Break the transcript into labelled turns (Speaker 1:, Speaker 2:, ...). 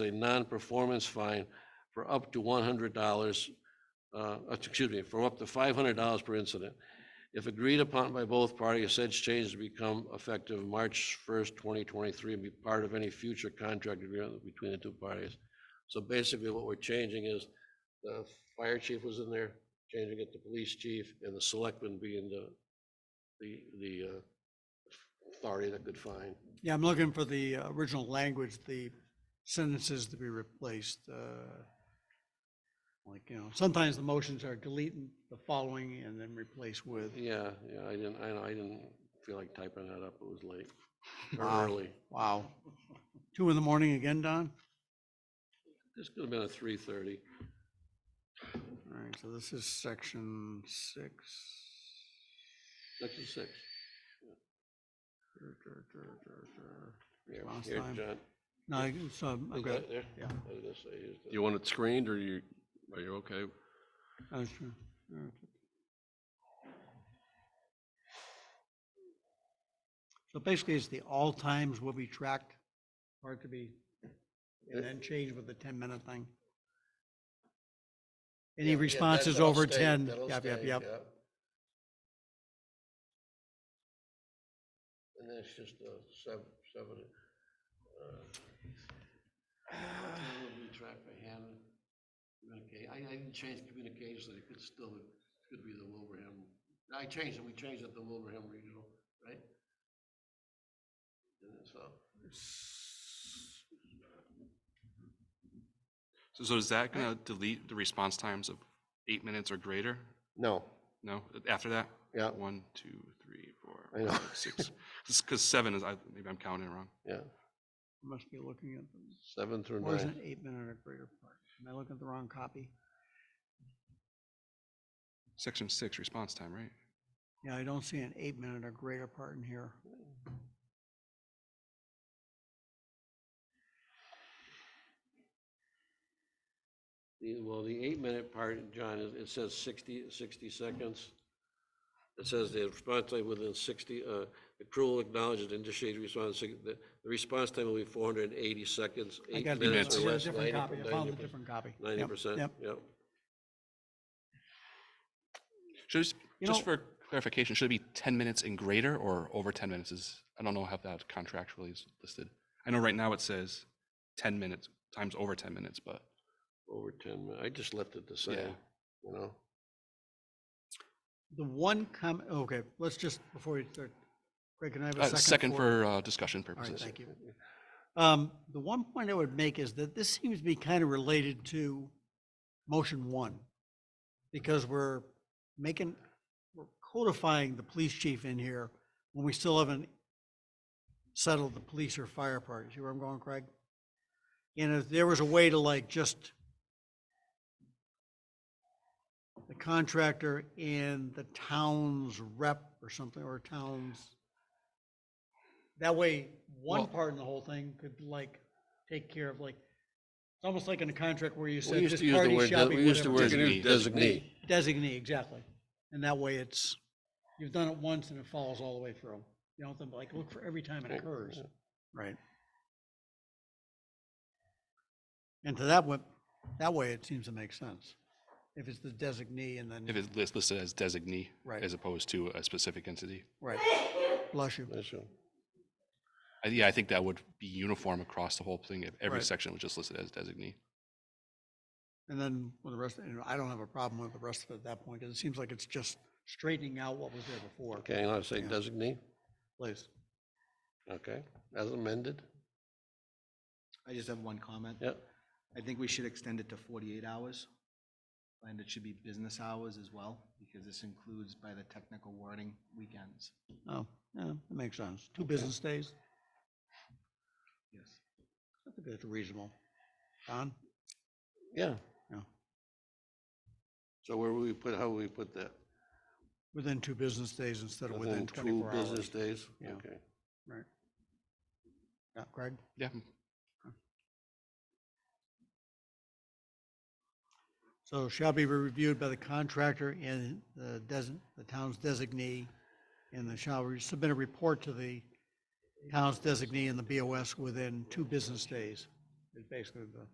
Speaker 1: a non-performance fine for up to one hundred dollars, uh, excuse me, for up to five hundred dollars per incident. If agreed upon by both parties, said change to become effective March first, twenty twenty-three, and be part of any future contract agreement between the two parties. So basically, what we're changing is the fire chief was in there, changing it to police chief, and the selectman being the, the, the uh, authority that could fine.
Speaker 2: Yeah, I'm looking for the uh, original language, the sentences to be replaced. uh, Like, you know, sometimes the motions are deleting the following and then replace with.
Speaker 1: Yeah, yeah, I didn't, I know, I didn't feel like typing that up, it was late, or
Speaker 2: Wow.
Speaker 1: early.
Speaker 2: Wow. Two in the morning again, Don?
Speaker 1: This could have been a three thirty.
Speaker 2: All right, so this is section six.
Speaker 1: Section six.
Speaker 2: Dur, dur, dur, dur, dur.
Speaker 1: Here,
Speaker 2: Last
Speaker 1: here,
Speaker 2: time.
Speaker 1: John.
Speaker 2: No, I- so I'm- I've
Speaker 1: Is
Speaker 2: got,
Speaker 1: that there?
Speaker 2: yeah.
Speaker 1: I was gonna say, is that-
Speaker 3: You want it screened or you, are you okay?
Speaker 2: oh, sure. All right. So basically, it's the all times will be tracked, or it could be,
Speaker 1: Uh,
Speaker 2: and then change with the ten-minute thing.
Speaker 1: Yeah,
Speaker 2: Any
Speaker 1: yeah, that-
Speaker 2: responses
Speaker 1: that'll
Speaker 2: over
Speaker 1: stay,
Speaker 2: ten?
Speaker 1: that'll
Speaker 2: Yep, yep,
Speaker 1: stay,
Speaker 2: yep.
Speaker 1: And that's just uh seven, seven. uh, it'll be tracked by hand. Communicate, I, I didn't change communications, it could still, could be the Wilbraham. I changed it, we changed it to Wilbraham Regional, right? And that's all.
Speaker 4: So, so is that gonna delete the response times of eight minutes or greater?
Speaker 1: No,
Speaker 4: No, after that?
Speaker 1: yeah,
Speaker 4: One, two, three, four,
Speaker 1: I know.
Speaker 4: five, six. Because seven is, I, maybe I'm counting wrong.
Speaker 1: yeah,
Speaker 2: Must be looking at, the-
Speaker 1: seven through
Speaker 2: or is
Speaker 1: nine.
Speaker 2: it eight-minute or greater part? Am I looking at the wrong copy?
Speaker 4: Section six, response time, right?
Speaker 2: Yeah, I don't see an eight-minute or greater part in here.
Speaker 1: The- Well, the eight-minute part, John, it it says 60, 60 seconds. It says the response time within 60, uh, the crew will acknowledge and initiate response, the the response time will be 480 seconds,
Speaker 2: I
Speaker 1: eight
Speaker 2: got
Speaker 1: minutes
Speaker 2: I
Speaker 1: or
Speaker 2: got a
Speaker 1: less, 90
Speaker 2: different copy. I found a
Speaker 1: 90%.
Speaker 2: different copy. Yep,
Speaker 1: Ninety percent,
Speaker 2: Yep.
Speaker 1: yep.
Speaker 4: Should, it s-
Speaker 2: You
Speaker 4: just
Speaker 2: know-
Speaker 4: for clarification, should it be ten minutes and greater or over ten minutes is, I don't know how that contractually is listed. I know right now it says ten minutes times over ten minutes, but
Speaker 1: Over ten, mi- I just left it the
Speaker 4: Yeah.
Speaker 1: same, you know?
Speaker 2: The one com, okay, let's just, before you start, Craig, can I have
Speaker 4: uh,
Speaker 2: a second?
Speaker 4: second for uh, discussion
Speaker 2: All right,
Speaker 4: purposes.
Speaker 2: thank you. Um, the one point I would make is that this seems to be kind of related to motion one. Because we're making, we're codifying the police chief in here when we still haven't settled the police or fire part. You see where I'm going, Craig? And if there was a way to like just the contractor and the town's rep or something, or town's that way, one
Speaker 4: Well-
Speaker 2: part in the whole thing could like take care of like, it's almost like in a contract where you
Speaker 1: We
Speaker 2: said
Speaker 1: used
Speaker 2: this
Speaker 1: to use the
Speaker 2: party
Speaker 1: word,
Speaker 2: shall
Speaker 1: de-
Speaker 2: be
Speaker 1: we used the
Speaker 2: whatever.
Speaker 1: word
Speaker 4: Designee.
Speaker 1: designee.
Speaker 2: Designee, exactly. And that way it's, you've done it once and it follows all the way through. You don't have to like look for every time it
Speaker 1: Right,
Speaker 2: occurs.
Speaker 1: yeah.
Speaker 2: Right. And to that one, that way it seems to make sense. If it's the designee and
Speaker 4: If
Speaker 2: then,
Speaker 4: it's lis- listed as designee
Speaker 2: Right.
Speaker 4: as opposed to a specific entity.
Speaker 2: right, bless you.
Speaker 1: That's all.
Speaker 4: I- Yeah, I think that would be uniform across the whole thing if every
Speaker 2: Right.
Speaker 4: section was just listed as designee.
Speaker 2: And then with the rest, you know, I don't have a problem with the rest of it at that point, because it seems like it's just straightening out what was there before.
Speaker 1: Okay, and I'll say
Speaker 2: Yeah.
Speaker 1: designee,
Speaker 2: Please.
Speaker 1: okay, as amended,
Speaker 5: I just have one comment.
Speaker 1: yep.
Speaker 5: I think we should extend it to forty-eight hours. And it should be business hours as well, because this includes by the technical wording, weekends.
Speaker 2: Oh, yeah, that makes sense. Two business days,
Speaker 5: Yes.
Speaker 2: I think that's reasonable. Don?
Speaker 1: Yeah.
Speaker 2: Yeah.
Speaker 1: So where will we put, how will we put that?
Speaker 2: Within two business days instead of within
Speaker 1: Within two
Speaker 2: twenty-four
Speaker 1: business
Speaker 2: hours.
Speaker 1: days?
Speaker 2: Yeah.
Speaker 1: Okay.
Speaker 2: Right. Yeah, Craig?
Speaker 4: Yeah,
Speaker 2: So shall be reviewed by the contractor and the design, the town's designee, and the shall re- submit a report to the town's designee and the BOS within two business days. is basically the.